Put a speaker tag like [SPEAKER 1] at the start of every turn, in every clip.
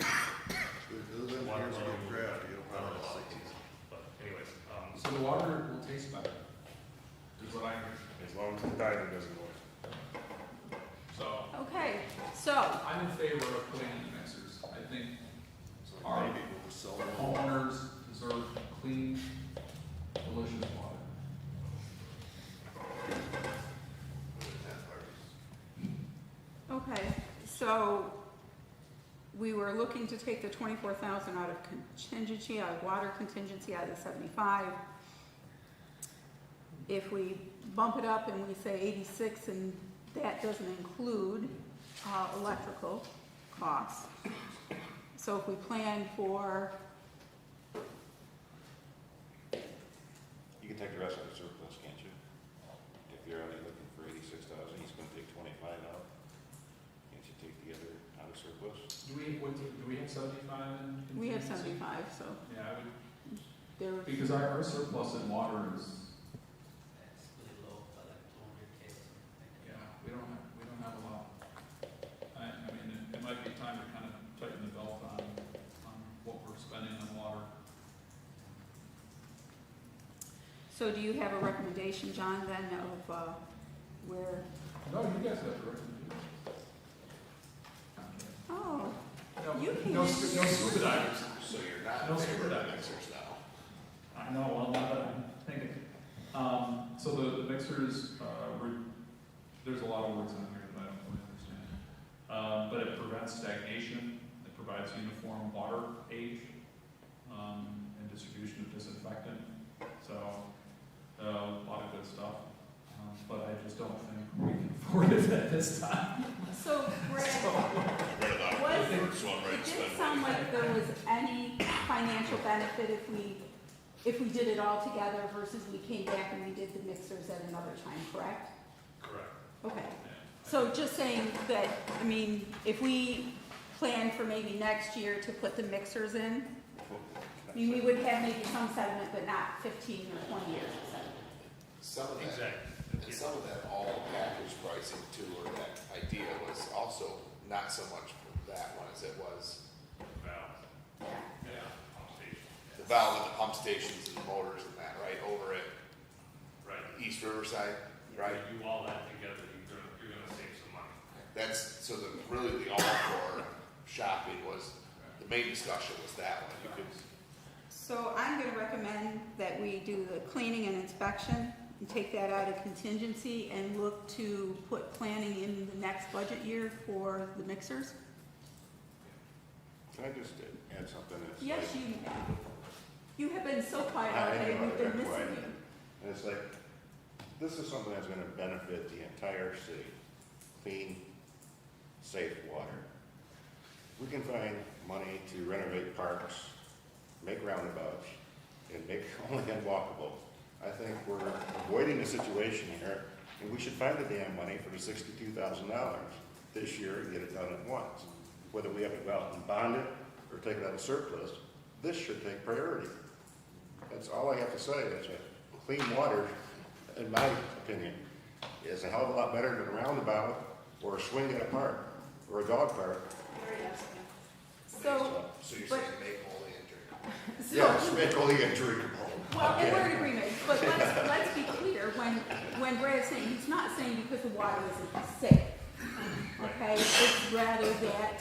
[SPEAKER 1] um, So the water will taste better, is what I heard.
[SPEAKER 2] As long as the diving doesn't go
[SPEAKER 1] So
[SPEAKER 3] Okay, so,
[SPEAKER 1] I'm in favor of putting in the mixers. I think
[SPEAKER 2] in.
[SPEAKER 1] Alright.
[SPEAKER 2] Maybe we'll just sell
[SPEAKER 1] the
[SPEAKER 2] them.
[SPEAKER 1] homeowners deserve clean, delicious water.
[SPEAKER 3] okay, so we were looking to take the twenty-four thousand out of contingency, out of water contingency, out of the seventy-five. If we bump it up and we say eighty-six, and that doesn't include, uh, electrical costs. So if we plan for,
[SPEAKER 4] You can take the rest of the surplus, can't you? If you're only looking for eighty-six thousand, he's gonna take twenty-five out. Can't you take the other out of surplus?
[SPEAKER 1] Do we, what, do do we have seventy-five in contingency?
[SPEAKER 3] we have seventy-five, so
[SPEAKER 1] Yeah, I would,
[SPEAKER 3] there,
[SPEAKER 1] because our, our surplus in water is,
[SPEAKER 5] That's really low, by like two hundred K or something.
[SPEAKER 1] yeah, we don't have, we don't have a lot. I, I mean, it, it might be time to kind of tighten the belt on, on what we're spending on water.
[SPEAKER 3] so do you have a recommendation, John, then, of, uh, where
[SPEAKER 1] No, you guys have the recommendation.
[SPEAKER 3] Oh,
[SPEAKER 1] No,
[SPEAKER 3] You can-
[SPEAKER 1] No, scu- no scuba divers.
[SPEAKER 4] So you're not
[SPEAKER 1] No scuba divers.
[SPEAKER 4] mixers now?
[SPEAKER 1] I know, well, now that I'm thinking. Um, so the, the mixers, uh, re- there's a lot of words on here that I don't really understand. Um, but it prevents stagnation, it provides uniform water age, um, and distribution of disinfectant. So, uh, a lot of good stuff, um, but I just don't think we can afford it at this time.
[SPEAKER 3] so Brad,
[SPEAKER 4] Right, the first one,
[SPEAKER 3] it
[SPEAKER 4] right,
[SPEAKER 3] didn't
[SPEAKER 4] spend
[SPEAKER 3] sound
[SPEAKER 4] money.
[SPEAKER 3] like there was any financial benefit if we, if we did it all together versus we came back and we did the mixers at another time, correct?
[SPEAKER 1] Correct.
[SPEAKER 3] Okay, so just saying that, I mean, if we plan for maybe next year to put the mixers in, I mean, we would have maybe some sediment, but not fifteen or twenty years of sediment.
[SPEAKER 6] Some of that, and some of that all package pricing too, or that idea was also not so much for that one as it was
[SPEAKER 3] Yeah.
[SPEAKER 1] Yeah,
[SPEAKER 6] the valve and the pump stations and the motors and that, right, over at
[SPEAKER 2] Right,
[SPEAKER 6] East Riverside, right?
[SPEAKER 2] you all that together, you're gonna, you're gonna save some money.
[SPEAKER 6] That's, so the, really the all for shopping was, the main discussion was that one, you could
[SPEAKER 3] So I'm gonna recommend that we do the cleaning and inspection and take that out of contingency and look to put planning in the next budget year for the mixers.
[SPEAKER 4] Can I just add something that's like?
[SPEAKER 3] Yes, you, you have been so quiet all
[SPEAKER 4] I- I
[SPEAKER 3] day,
[SPEAKER 4] know,
[SPEAKER 3] we've
[SPEAKER 4] I've
[SPEAKER 3] been
[SPEAKER 4] been
[SPEAKER 3] missing
[SPEAKER 4] quiet.
[SPEAKER 3] you.
[SPEAKER 4] And it's like, this is something that's gonna benefit the entire city, clean, safe water. We can find money to renovate parks, make roundabouts, and make only unwalkable. I think we're avoiding a situation here, and we should find the damn money for the sixty-two thousand dollars this year and get it done at once. Whether we have to go out and bond it or take it out of surplus, this should take priority. That's all I have to say, is that clean water, in my opinion, is a hell of a lot better than a roundabout or a swing at a park or a dog park.
[SPEAKER 3] So,
[SPEAKER 6] So you're
[SPEAKER 3] But-
[SPEAKER 6] saying make holy and drink.
[SPEAKER 3] so,
[SPEAKER 4] Yes, make all the entry.
[SPEAKER 3] well, and we're in agreement, but let's, let's be clear, when, when Brad's saying, he's not saying because the water isn't safe. Okay, it's rather that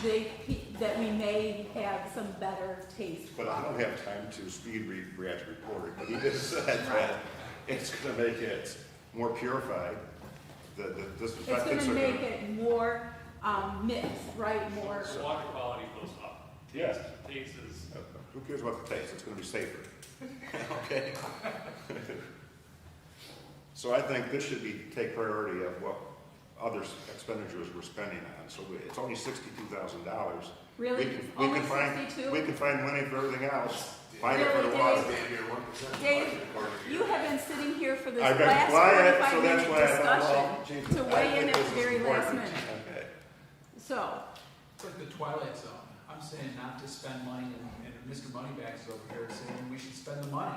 [SPEAKER 3] they, that we may have some better taste.
[SPEAKER 4] But I don't have time to speed read Brad's report, but he just said that it's gonna make it more purified, the, the
[SPEAKER 3] It's
[SPEAKER 4] disinfectants
[SPEAKER 3] gonna
[SPEAKER 4] are gonna.
[SPEAKER 3] make it more, um, mixed, right, more,
[SPEAKER 2] So water quality goes up.
[SPEAKER 4] Yes.
[SPEAKER 2] Takes is,
[SPEAKER 4] Who cares about the taste, it's gonna be safer. Okay? So I think this should be, take priority of what other expenditures we're spending on, so we- it's only sixty-two thousand dollars.
[SPEAKER 3] really, only sixty-two?
[SPEAKER 4] We can find money for everything else, find it for the
[SPEAKER 3] Really,
[SPEAKER 4] water.
[SPEAKER 3] Dave?
[SPEAKER 6] Damn near one percent.
[SPEAKER 3] Dave, you have been sitting here for this
[SPEAKER 4] I've been quiet,
[SPEAKER 3] last
[SPEAKER 4] so that's why I
[SPEAKER 3] forty-five
[SPEAKER 4] don't know.
[SPEAKER 3] minute
[SPEAKER 4] Jesus,
[SPEAKER 3] discussion to
[SPEAKER 4] I
[SPEAKER 3] weigh in
[SPEAKER 4] think
[SPEAKER 3] at the
[SPEAKER 4] this is
[SPEAKER 3] very last
[SPEAKER 4] important.
[SPEAKER 3] minute. So,
[SPEAKER 1] It's like the Twilight Zone. I'm saying not to spend money, and, and Mr. Moneybags is over here saying we should spend the money.